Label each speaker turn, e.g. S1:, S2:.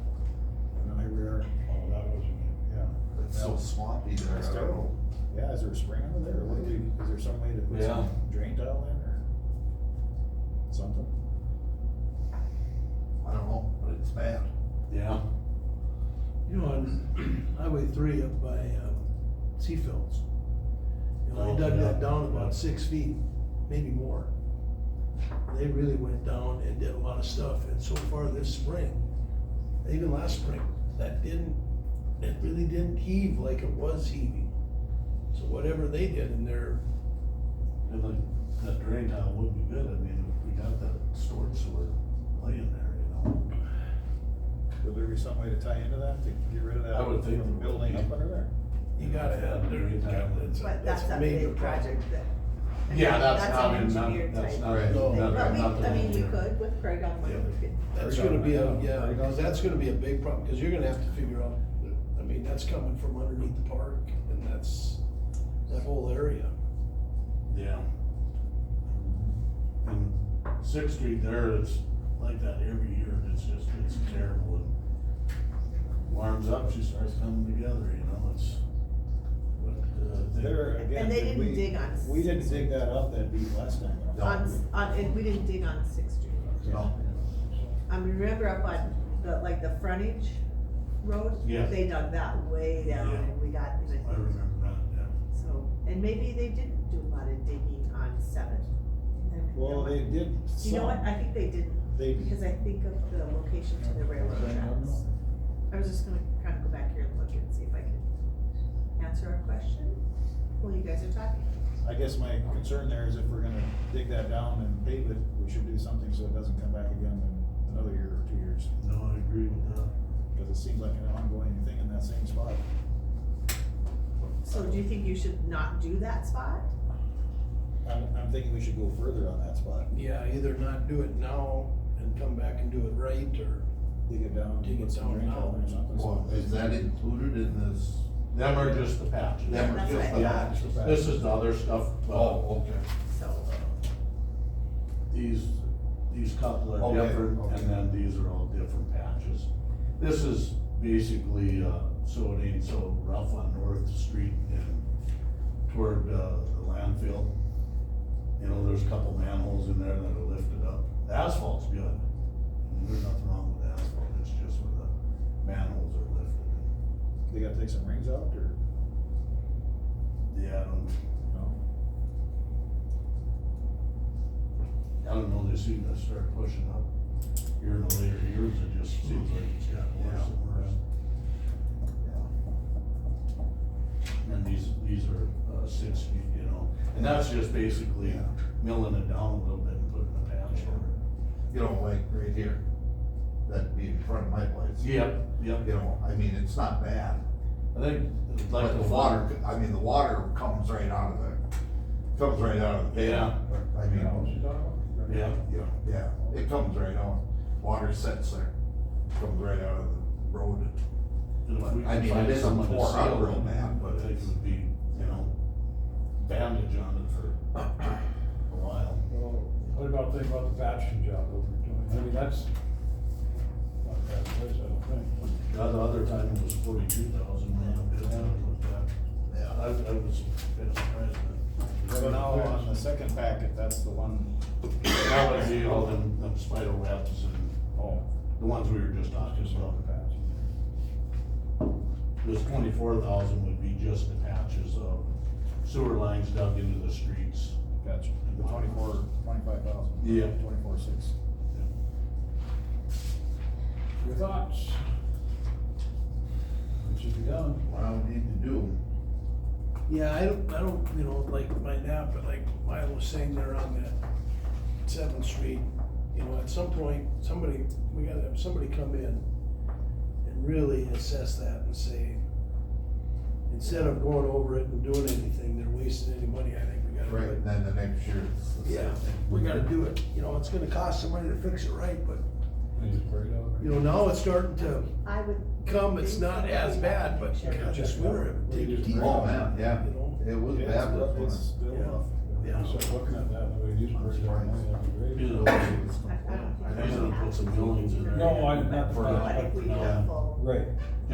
S1: so swampy there.
S2: It's terrible. Yeah, is there a spring over there, or what do we, is there some way to put some drain tile in, or something?
S1: I don't know, but it's bad.
S3: Yeah.
S4: You know, on Highway three up by, um, Seafields. You know,
S3: Oh,
S4: they dug
S3: yeah.
S4: that down about six feet, maybe more. They really went down and did a lot of stuff, and so far this spring, even last spring, that didn't, it really didn't heave like it was heaving. So whatever they did in their,
S3: And like, that drain tile would be good, I mean, if we got that storm sewer laying there, you know?
S2: Would there be some way to tie into that, to get rid of that
S3: I would think
S2: from
S3: there would
S2: building
S3: be.
S2: up under there?
S4: you gotta have their, that's
S5: But that's
S4: a
S5: a
S4: major
S5: big
S4: project.
S5: project that. I mean,
S3: Yeah, that's
S5: an
S3: not, in- not,
S5: engineer
S3: that's
S5: type
S3: not,
S1: Right.
S3: no,
S5: thing.
S3: not, not
S5: But we,
S3: the
S5: I mean, we
S3: engineer.
S5: could with Craig on one, we could.
S4: That's gonna be a, yeah, because that's gonna be a big problem, because you're gonna have to figure out, I mean, that's coming from underneath the park, and that's, that whole area.
S3: Yeah. And Sixth Street there, it's like that every year, and it's just, it's terrible, and warms up, she starts coming together, you know, it's. but, uh, they-
S2: There, again,
S5: And they
S2: did
S5: didn't
S2: we-
S5: dig on
S2: We didn't
S5: Sixth
S2: dig that up that deep last time. I don't
S5: On,
S2: think.
S5: s- on, and we didn't dig on Sixth Street.
S1: No.
S5: I mean, remember up on the, like the frontage road?
S3: Yeah.
S5: They dug that way down
S3: Yeah.
S5: and we got, even-
S3: I remember that, yeah.
S5: so, and maybe they didn't do a lot of digging on Seventh.
S2: Well, they did
S5: You know what,
S2: some,
S5: I think they didn't,
S2: they,
S5: because I think of the location to the railroad
S2: Okay, I don't
S5: tracks. I was just gonna kind of go back here and look and see if I could answer a question while you guys are talking.
S2: I guess my concern there is if we're gonna dig that down and pave it, we should do something so it doesn't come back again in another year or two years.
S3: No, I agree with that.
S2: Cause it seems like an ongoing thing in that same spot.
S5: So do you think you should not do that spot?
S2: I'm, I'm thinking we should go further on that spot,
S4: Yeah, either not do it now and come back and do it right, or,
S2: dig it down,
S4: Dig it
S2: put some
S4: down
S2: drain
S4: now.
S2: tile in or something.
S1: Well, is that included in this?
S3: Them are just the patches.
S1: Them are
S5: That's
S1: just
S5: right.
S1: the
S3: Yeah,
S1: match.
S3: this is the other stuff, but
S1: Oh, okay.
S5: So,
S3: these, these couple are
S1: Okay,
S3: different,
S1: okay.
S3: and then these are all different patches. This is basically, uh, so it ain't so rough on North Street and toward, uh, the landfill. You know, there's a couple manholes in there that are lifted up. The Asphalt's good. And There's nothing wrong with the asphalt, it's just where the manholes are lifted.
S2: They gotta take some rings out or,
S3: Yeah, I don't,
S2: no?
S3: I don't know, they seem to start pushing up here in the later years, it just seems like it's gotten worse and worse. And these, these are, uh, six, feet, you know, and that's just basically
S1: Yeah.
S3: milling it down a little bit and putting a patch over it.
S1: You know, like right here, that'd be in front of my place.
S3: Yep, yep,
S1: You know, I mean, it's not bad,
S3: I think, like
S1: but the water, I mean, the water comes right out of the, comes right out of the pit.
S3: Yeah.
S1: I mean,
S3: Yeah,
S1: you know, yeah, it comes right out, water sets there, comes right out of the road.
S3: and if we
S1: I
S3: could
S1: mean,
S3: find
S1: it isn't
S3: someone to
S1: tore up
S3: seal
S1: real
S3: it,
S1: bad, but
S3: I think it
S1: it's-
S3: would be, you know, bandage on it for a while.
S6: Well, what about, think about the batching job over doing, I mean, that's not a bad place, I don't think.
S3: The other- other time it was forty-two thousand, I,
S1: Yeah.
S3: I was kind of surprised that.
S2: So now on the second packet, that's the one,
S3: That would be all them, them spider webs and
S2: oh,
S3: the ones we were just talking
S2: just
S3: about.
S2: on the patch.
S3: This twenty-four thousand would be just the patches of sewer lines dug into the streets.
S2: Gotcha, the twenty-four, twenty-five thousand.
S3: Yeah.
S2: Twenty-four, six.
S6: Your thoughts? What should be done?
S1: What I would need to do,
S4: yeah, I don't, I don't, you know, like my nap, but like Milo was saying there on that Seventh Street, you know, at some point, somebody, we gotta have somebody come in and really assess that and say, instead of going over it and doing anything, they're wasting any money, I think we gotta. do
S1: right,
S4: it
S1: and then the next year, it's the
S4: Yeah,
S1: same thing.
S4: we gotta do it, you know, it's gonna cost somebody to fix it right, but,
S6: Things buried out.
S4: you know, now it's starting to
S5: I would.
S4: come, it's not as bad, but God, this winter, it would take a deep.
S1: Oh, man, yeah,
S4: You know?
S1: it was bad, but
S2: It's
S1: it's,
S2: still
S4: Yeah.
S2: rough.
S4: Yeah.
S6: So looking at that, the way these buried out, that'd be great.
S3: You know,
S5: I- I don't think
S3: I think they'll put some buildings in there.
S6: No, I- not the
S5: But
S6: front,
S5: I think
S3: but
S5: we need
S3: no.
S5: a full.
S6: Right.